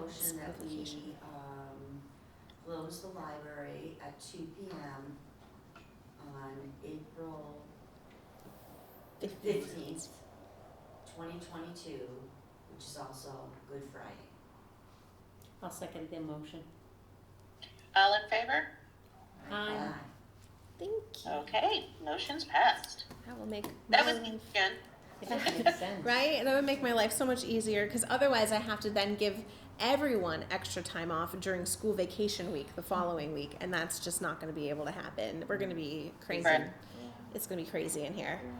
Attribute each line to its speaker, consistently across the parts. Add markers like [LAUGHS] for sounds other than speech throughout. Speaker 1: motion that we, um, close the library at two P M on April fifteenth, twenty twenty-two, which is also Good Friday.
Speaker 2: I'll second the motion.
Speaker 3: All in favor?
Speaker 2: Aye.
Speaker 4: Thank you.
Speaker 3: Okay, motion's passed.
Speaker 4: That will make
Speaker 3: That
Speaker 4: my
Speaker 3: was me
Speaker 4: life-
Speaker 3: again.
Speaker 2: If that makes sense.
Speaker 4: right. That would make my life so much easier because otherwise I have to then give everyone extra time off during school vacation week the following week, and that's just not going to be able to happen. We're going to be crazy.
Speaker 3: Right.
Speaker 4: It's going to be crazy in here.
Speaker 5: And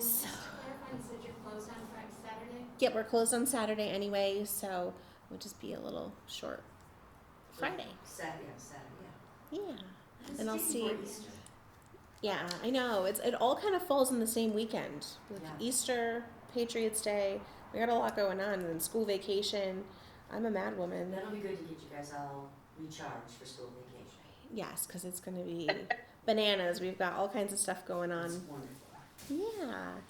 Speaker 5: just to clarify, you said you're closed on Friday, Saturday?
Speaker 4: Yep, we're closed on Saturday anyway, so we'll just be a little short Friday.
Speaker 1: Saturday, yeah, Saturday,
Speaker 4: Yeah.
Speaker 1: yeah.
Speaker 4: And I'll
Speaker 1: It's day before
Speaker 4: see-
Speaker 1: Easter.
Speaker 4: Yeah, I know. It's it all kind of falls in the same weekend. With
Speaker 1: Yeah.
Speaker 4: Easter, Patriots Day. We got a lot going on and then school vacation. I'm a mad
Speaker 1: And
Speaker 4: woman.
Speaker 1: that'll be good to get you guys all recharged for school vacation.
Speaker 4: Yes, because it's gonna be bananas. We've got all kinds of stuff going
Speaker 1: It's
Speaker 4: on.
Speaker 1: wonderful.
Speaker 4: Yeah.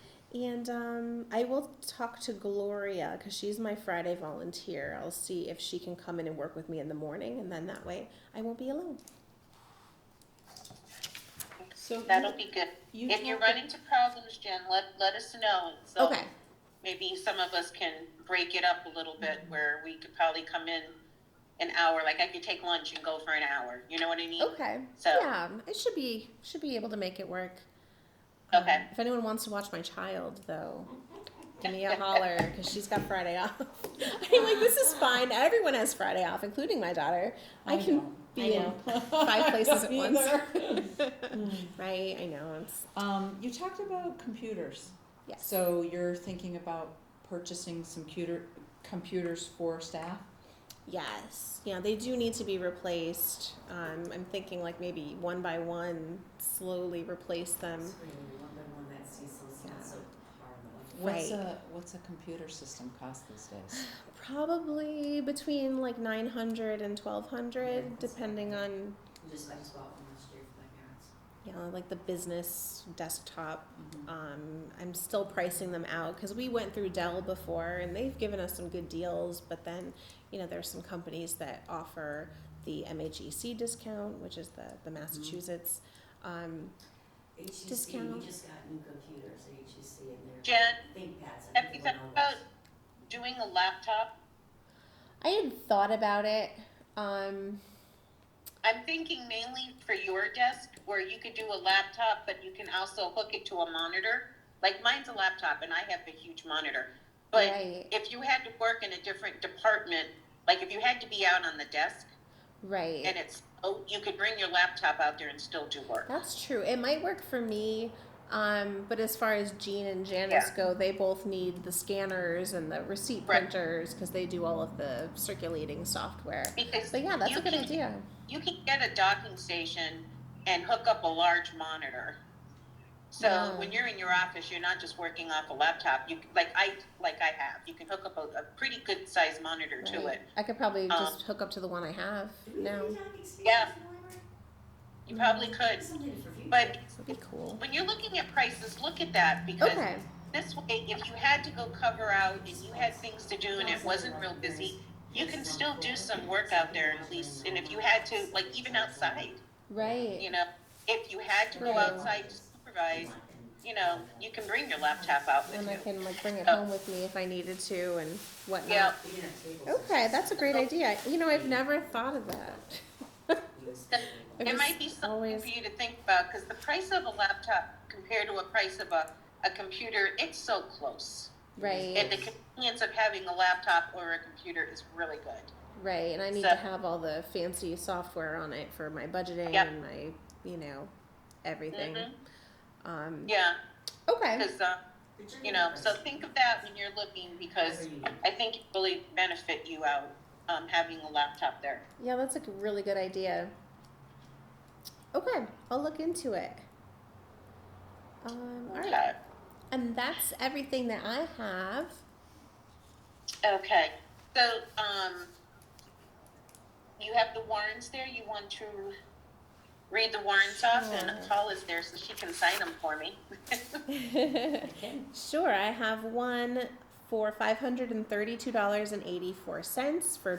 Speaker 4: And um, I will talk to Gloria because she's my Friday volunteer. I'll see if she can come in and work with me in the morning, and then that way I won't be alone.
Speaker 6: So
Speaker 3: That'll be good.
Speaker 6: you,
Speaker 3: If you
Speaker 6: talked-
Speaker 3: run into problems, Jen, let, let us know. So
Speaker 4: okay.
Speaker 3: Maybe some of us can break it up a little bit where we could probably come in an hour, like I could take lunch and go for an hour. You know what I mean?
Speaker 6: Oh,
Speaker 4: Okay.
Speaker 3: So-
Speaker 4: yeah, I should be should be able to make it work.
Speaker 3: Okay.
Speaker 4: Um, if anyone wants to watch my child, though, give me a holler because she's got Friday off. [LAUGHS] I'm like, this is fine. Everyone has Friday off, including my daughter. I,
Speaker 2: I
Speaker 4: can
Speaker 2: know.
Speaker 4: be
Speaker 2: I
Speaker 4: in
Speaker 2: know.
Speaker 6: [LAUGHS]
Speaker 4: five places at
Speaker 6: Me
Speaker 4: once. [LAUGHS]
Speaker 6: either. Hmm.
Speaker 4: right? I know. It's,
Speaker 6: um, you talked about computers.
Speaker 4: yes.
Speaker 6: So you're thinking about purchasing some computer, computers for staff?
Speaker 4: Yes. Yeah, they do need to be replaced. Um, I'm thinking like maybe one by one, slowly replace them.
Speaker 1: It's really one by one, that Cecil's
Speaker 4: um, Yeah.
Speaker 1: not so hard.
Speaker 6: What's
Speaker 4: Right.
Speaker 6: a, what's a computer system cost these days?
Speaker 4: Probably between like 900 and 1200, depending on,
Speaker 1: We just, I just bought one last year for my parents.
Speaker 4: you know, like the business desktop.
Speaker 1: Mhm.
Speaker 4: Um, I'm still pricing them out because we went through Dell before and they've given us some good deals, but then, you know, there's some companies that offer the MHEC discount, which is the, the Massachusetts. Um,
Speaker 1: HTC,
Speaker 4: Discount.
Speaker 1: E we just got new computers, HTC and their
Speaker 3: Jen,
Speaker 1: ThinkPads. I
Speaker 3: have
Speaker 1: think
Speaker 3: you
Speaker 1: they're
Speaker 3: thought
Speaker 1: all
Speaker 3: about
Speaker 1: those.
Speaker 3: doing a laptop?
Speaker 4: I had thought about it. Um,
Speaker 3: I'm thinking mainly for your desk where you could do a laptop, but you can also hook it to a monitor. Like mine's a laptop and I have a huge monitor. But
Speaker 4: Right.
Speaker 3: if you had to work in a different department, like if you had to be out on the desk
Speaker 4: right.
Speaker 3: and it's, oh, you could bring your laptop out there and still do work.
Speaker 4: That's true. It might work for me. Um, but as far as Jean and Janice
Speaker 3: Yeah.
Speaker 4: go, they both need the scanners and the receipt
Speaker 3: Right.
Speaker 4: printers because they do all of the circulating software.
Speaker 3: Because
Speaker 4: But yeah, that's
Speaker 3: you
Speaker 4: a good
Speaker 3: can,
Speaker 4: idea.
Speaker 3: You can get a docking station and hook up a large monitor. So
Speaker 4: Yeah.
Speaker 3: when you're in your office, you're not just working off a laptop. You like I like I have. You can hook up a, a pretty good sized monitor to
Speaker 4: Right.
Speaker 3: it.
Speaker 4: I could probably
Speaker 3: Um,
Speaker 4: just hook up to the one I have
Speaker 1: Do we
Speaker 4: now.
Speaker 1: need docking stations
Speaker 3: Yeah.
Speaker 1: in the library?
Speaker 3: You probably could.
Speaker 1: Something for future.
Speaker 3: But
Speaker 4: That'd be cool.
Speaker 3: when you're looking at prices, look at that because
Speaker 4: Okay.
Speaker 3: this way, if you had to go cover out and you had things to do and it wasn't real busy, you can still do some work out there at least. And if you had to, like even outside,
Speaker 4: Right.
Speaker 3: you know, if you had to go
Speaker 4: Right.
Speaker 3: outside to supervise, you know, you can bring your laptop out with
Speaker 4: And I
Speaker 3: you.
Speaker 4: can like bring it
Speaker 3: Oh.
Speaker 4: home with me if I needed to and whatnot.
Speaker 3: Yeah. Oh.
Speaker 1: We can have tables.
Speaker 4: Okay, that's a great idea. You know, I've never thought of that.
Speaker 1: It's
Speaker 3: It
Speaker 4: just
Speaker 3: might be something
Speaker 4: always-
Speaker 3: for you to think about, because the price of a laptop compared to a price of a, a computer, it's so close.
Speaker 4: Right.
Speaker 3: And the convenience of having a laptop or a computer is really good.
Speaker 4: Right, and I need
Speaker 3: So-
Speaker 4: to have all the fancy software on it for my budgeting
Speaker 3: Yep.
Speaker 4: and my, you know, everything.
Speaker 3: Mhm.
Speaker 4: Um,
Speaker 3: Yeah,
Speaker 4: Okay.
Speaker 3: because, uh,
Speaker 1: your
Speaker 3: you know, so
Speaker 1: preference.
Speaker 3: think of that when you're looking, because
Speaker 1: Whatever you need.
Speaker 3: I think it really benefit you out, um, having a laptop there.
Speaker 4: Yeah, that's a really good idea. Okay, I'll look into it. Um, all right.
Speaker 3: Okay.
Speaker 4: And that's everything that I have. [LAUGHS]
Speaker 3: Okay, so, um, you have the warrants there, you want to read the warrants off, and
Speaker 4: Sure.
Speaker 3: Paul is there, so she can sign them for me. [LAUGHS]
Speaker 4: sure, I have one for $532.84 for